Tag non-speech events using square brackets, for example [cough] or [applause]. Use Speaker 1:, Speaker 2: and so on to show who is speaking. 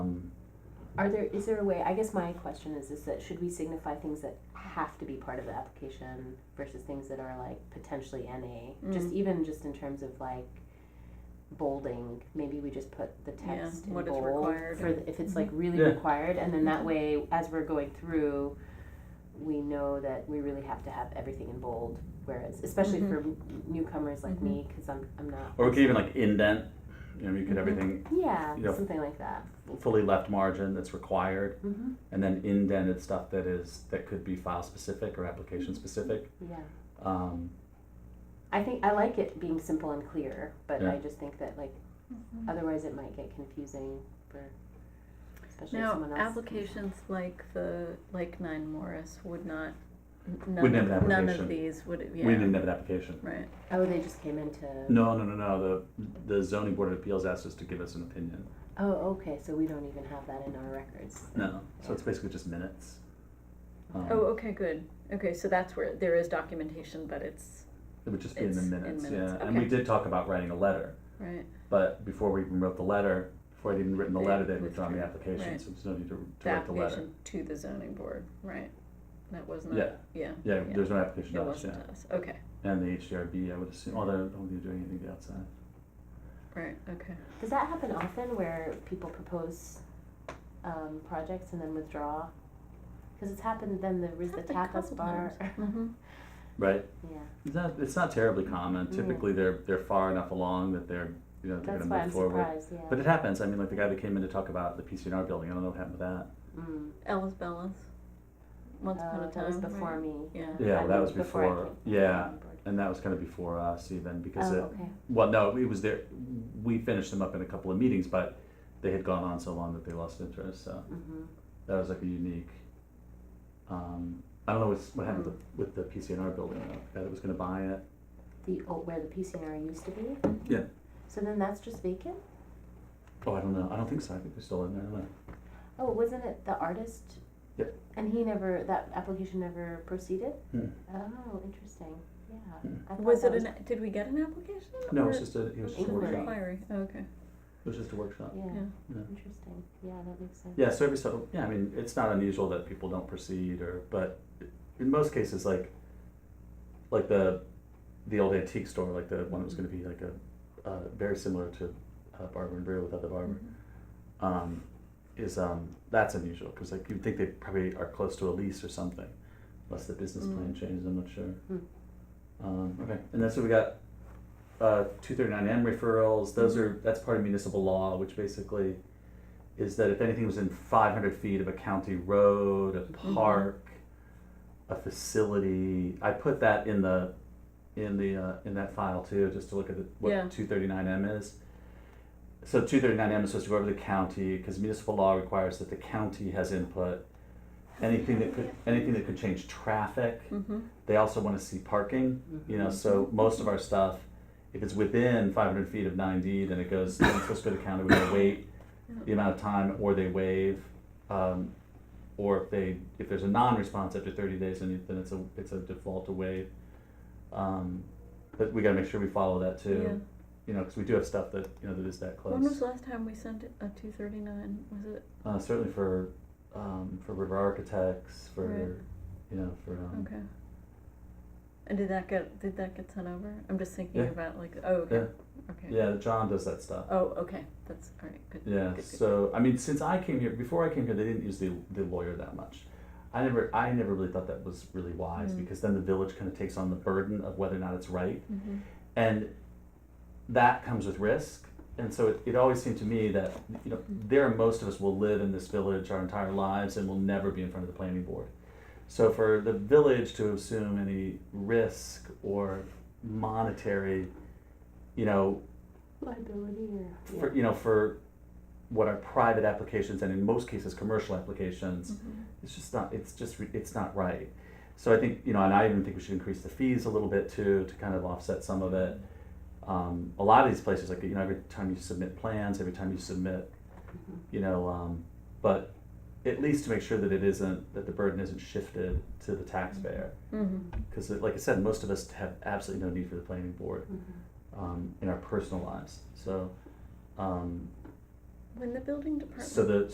Speaker 1: Are there, is there a way, I guess my question is, is that should we signify things that have to be part of the application versus things that are like potentially NA?
Speaker 2: Mm.
Speaker 1: Just even just in terms of like bolding, maybe we just put the
Speaker 2: Yeah,
Speaker 1: text in
Speaker 2: what is
Speaker 1: bold
Speaker 2: required. Mm-hmm.
Speaker 1: for, the- if it's like really
Speaker 3: Yeah.
Speaker 1: required, and then that way, as we're going through, we know that we really have to have everything in bold, whereas, especially
Speaker 2: Mhm.
Speaker 1: for n- newcomers like
Speaker 2: Mhm.
Speaker 1: me, cause I'm, I'm not,
Speaker 3: Or we could even like indent, you know, you could
Speaker 2: Mhm.
Speaker 3: everything
Speaker 1: yeah,
Speaker 3: Yeah.
Speaker 1: something like that.
Speaker 3: fully left margin that's required,
Speaker 1: hmm
Speaker 3: and then indented stuff that is, that could be file specific or application specific.
Speaker 1: yeah.
Speaker 3: Um,
Speaker 1: I think I like it being simple and clear, but I
Speaker 3: Yeah.
Speaker 1: just think that like otherwise it might get confusing for especially if
Speaker 2: Now,
Speaker 1: someone else.
Speaker 2: applications like the, like Nine Morris would not, n-
Speaker 3: Wouldn't
Speaker 2: none,
Speaker 3: have
Speaker 2: of-
Speaker 3: an
Speaker 2: none of
Speaker 3: application.
Speaker 2: these would,
Speaker 3: We
Speaker 2: yeah,
Speaker 3: didn't have an application.
Speaker 2: right.
Speaker 1: Oh, they just came into.
Speaker 3: No, no, no, no. The the zoning board of appeals asked us to give us an opinion.
Speaker 1: Oh, okay. So we don't even have that in our records.
Speaker 3: No, so it's basically just minutes. Um,
Speaker 2: Oh, okay, good. Okay, so that's where, there is documentation, but it's,
Speaker 3: It would just be in the
Speaker 2: It's in
Speaker 3: minutes,
Speaker 2: minutes,
Speaker 3: yeah. And we
Speaker 2: okay.
Speaker 3: did talk about writing a letter,
Speaker 2: right,
Speaker 3: but before we even wrote the letter, before I'd even written the
Speaker 2: They
Speaker 3: letter, they'd withdrawn the
Speaker 2: withdrew,
Speaker 3: application,
Speaker 2: right.
Speaker 3: so there's no need to, to
Speaker 2: the
Speaker 3: write the letter.
Speaker 2: application to the zoning board, right? That was
Speaker 3: Yeah.
Speaker 2: not, yeah,
Speaker 3: Yeah, there's no application
Speaker 2: it
Speaker 3: to us, yeah.
Speaker 2: wasn't us, okay,
Speaker 3: And the HDRB, I would assume, although, I don't think they're doing anything outside.
Speaker 2: right, okay.
Speaker 1: Does that happen often where people propose um, projects and then withdraw? Because it's happened. Then there was the
Speaker 2: Happened a
Speaker 1: tapas
Speaker 2: couple
Speaker 1: bar.
Speaker 2: Mm-hmm.
Speaker 3: Right,
Speaker 1: [laughs] yeah,
Speaker 3: it's not, it's not terribly common,
Speaker 1: Mm.
Speaker 3: typically they're, they're far enough along that they're, you know, they're
Speaker 1: that's
Speaker 3: gonna
Speaker 1: why I'm
Speaker 3: move forward.
Speaker 1: surprised. Yeah.
Speaker 3: But it happens, I mean, like the guy that came in to talk about the PCNR building, I don't know what happened with that.
Speaker 1: mm.
Speaker 2: Ellis Bellas, once upon
Speaker 1: Oh,
Speaker 2: a
Speaker 1: that was
Speaker 2: time,
Speaker 1: before
Speaker 2: right?
Speaker 1: me.
Speaker 2: Yeah.
Speaker 3: Yeah,
Speaker 1: I
Speaker 3: that was
Speaker 1: moved before I
Speaker 3: before-
Speaker 1: came-
Speaker 3: yeah.
Speaker 1: came on board.
Speaker 3: And that was kind of before us even, because
Speaker 1: Oh,
Speaker 3: it,
Speaker 1: okay.
Speaker 3: Well, no, it was there. We finished them up in a couple of meetings, but they had gone on so long that they lost interest. So
Speaker 1: hmm
Speaker 3: that was like a unique. Um, I don't know what's, what
Speaker 1: Mm.
Speaker 3: happened with the, with the PCNR building. though. The guy that was going to buy it.
Speaker 1: The oh, where the PCNR used to be.
Speaker 3: Yeah.
Speaker 1: So then that's just vacant.
Speaker 3: Oh, I don't know. I don't think so. I think they're still in there. I don't know.
Speaker 1: Oh, wasn't it the artist?
Speaker 3: Yep.
Speaker 1: And he never that application never proceeded.
Speaker 3: Hmm.
Speaker 1: Oh, interesting. Yeah.
Speaker 3: Hmm.
Speaker 1: I thought
Speaker 2: Was
Speaker 1: that
Speaker 2: it an, did we get an application?
Speaker 3: No, it
Speaker 2: or-
Speaker 3: was just a it was just a
Speaker 1: Inquiry.
Speaker 3: workshop.
Speaker 2: Inquiry, okay.
Speaker 3: It was just a workshop.
Speaker 1: Yeah.
Speaker 2: Yeah.
Speaker 3: Yeah.
Speaker 1: Interesting. Yeah, that makes sense.
Speaker 3: Yeah. So every so yeah, I mean, it's not unusual that people don't proceed, or but in most cases, like like the the old antique store, like the one that was going to be like a uh, very similar to uh, Barber and Brew without the barber.
Speaker 1: Mm-hmm.
Speaker 3: um, is um, that's unusual because like you'd think they probably are close to a lease or something, unless the business plan changes. I'm not sure.
Speaker 1: Mm. Hmm.
Speaker 3: Um, okay, and that's what we got. Uh, 239M referrals. Those are that's part of municipal law, which basically is that if anything was in 500 feet of a county road, a
Speaker 2: Mhm.
Speaker 3: park, a facility, I put that in the in the uh, in that file too, just to look at the, what
Speaker 2: Yeah.
Speaker 3: 239M is. So 239M is supposed to go over to the county because municipal law requires that the county has input. Anything that could anything that could change traffic.
Speaker 2: Mm-hmm.
Speaker 3: They also want to see parking. You know,
Speaker 1: Mhm.
Speaker 3: so most of our stuff, if it's within 500 feet of 9D, then it goes. Then it's supposed to go to the county. We gotta wait the amount of time, or they waive, um, or if they if there's a non-response after 30 days, then it- then it's a it's a default to waive. Um, but we gotta make sure we follow that too.
Speaker 2: Yeah.
Speaker 3: You know, because we do have stuff that you know that is that close.
Speaker 2: When was the last time we sent a two thirty nine? Was it
Speaker 3: uh, certainly for um, for river architects for
Speaker 2: Right.
Speaker 3: you know for um,
Speaker 2: okay? And did that get did that get sent over? I'm just thinking
Speaker 3: Yeah.
Speaker 2: about like oh okay okay
Speaker 3: yeah John does that stuff
Speaker 2: oh okay that's all right good
Speaker 3: yeah
Speaker 2: good, good.
Speaker 3: so I mean since I came here before I came here they didn't use the the lawyer that much I never I never really thought that was really wise
Speaker 2: Mm.
Speaker 3: because then the village kind of takes on the burden of whether or not it's right
Speaker 2: hmm
Speaker 3: and that comes with risk and so it, it always seemed to me that you know
Speaker 2: Mm.
Speaker 3: there are most of us will live in this village our entire lives and will never be in front of the planning board so for the village to assume any risk or monetary you know
Speaker 1: Liability or
Speaker 3: for, you know for what are private applications and in most cases commercial applications it's just not it's just re- it's not right so i think you know and i even think we should increase the fees a little bit too to kind of offset some of it um, a lot of these places like you know every time you submit plans every time you submit
Speaker 1: Mm-hmm.
Speaker 3: you know um, but at least to make sure that it isn't that the burden isn't shifted to the taxpayer
Speaker 2: hmm
Speaker 3: because like i said most of us have absolutely no need for the planning board
Speaker 1: Mm-hmm.
Speaker 3: um, in our personal lives so um,
Speaker 2: When the building department
Speaker 3: so the